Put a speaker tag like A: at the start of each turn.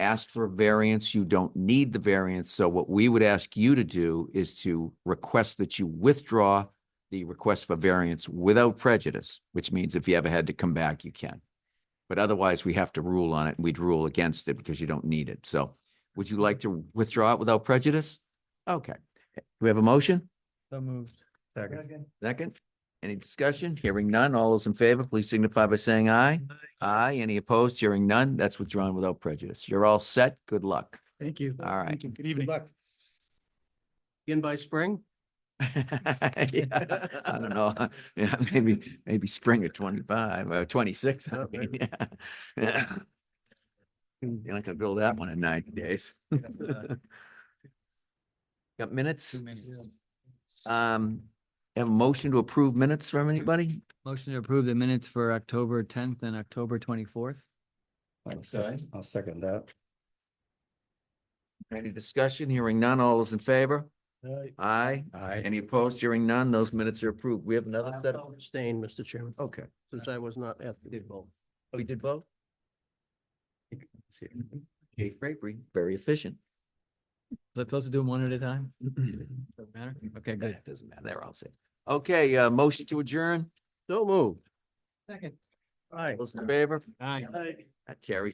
A: asked for variance, you don't need the variance. So what we would ask you to do is to request that you withdraw the request for variance without prejudice, which means if you ever had to come back, you can. But otherwise, we have to rule on it. We'd rule against it because you don't need it. So would you like to withdraw it without prejudice? Okay. Do we have a motion?
B: So moved.
C: Second.
A: Second? Any discussion? Hearing none. All those in favor, please signify by saying aye. Aye. Any opposed? Hearing none. That's withdrawn without prejudice. You're all set. Good luck.
B: Thank you.
A: All right.
B: Thank you. Good evening.
C: In by spring?
A: Yeah, I don't know. Yeah, maybe, maybe spring of twenty-five, or twenty-six. I
C: Oh,
A: mean, yeah. You're not gonna build that one in ninety days. Got minutes? Um, have a motion to approve minutes from anybody?
B: Motion to approve the minutes for October tenth and October twenty-fourth.
C: I'll sec- I'll second that.
A: Any discussion? Hearing none. All those in favor? Aye.
C: Aye.
A: Any opposed? Hearing none. Those minutes are approved. We have another set of,
C: Abstain, Mr. Chairman,
A: okay.
C: since I was not at. Did both.
A: Oh, you did both? Jay Frapery, very efficient.
B: Was I supposed to do them one at a time? Doesn't matter? Okay, good.
A: That doesn't matter. They're all set. Okay, uh, motion to adjourn.
C: So moved.
B: Second.
C: Aye.
A: Those in favor?
B: Aye.
C: Aye.
A: That carries.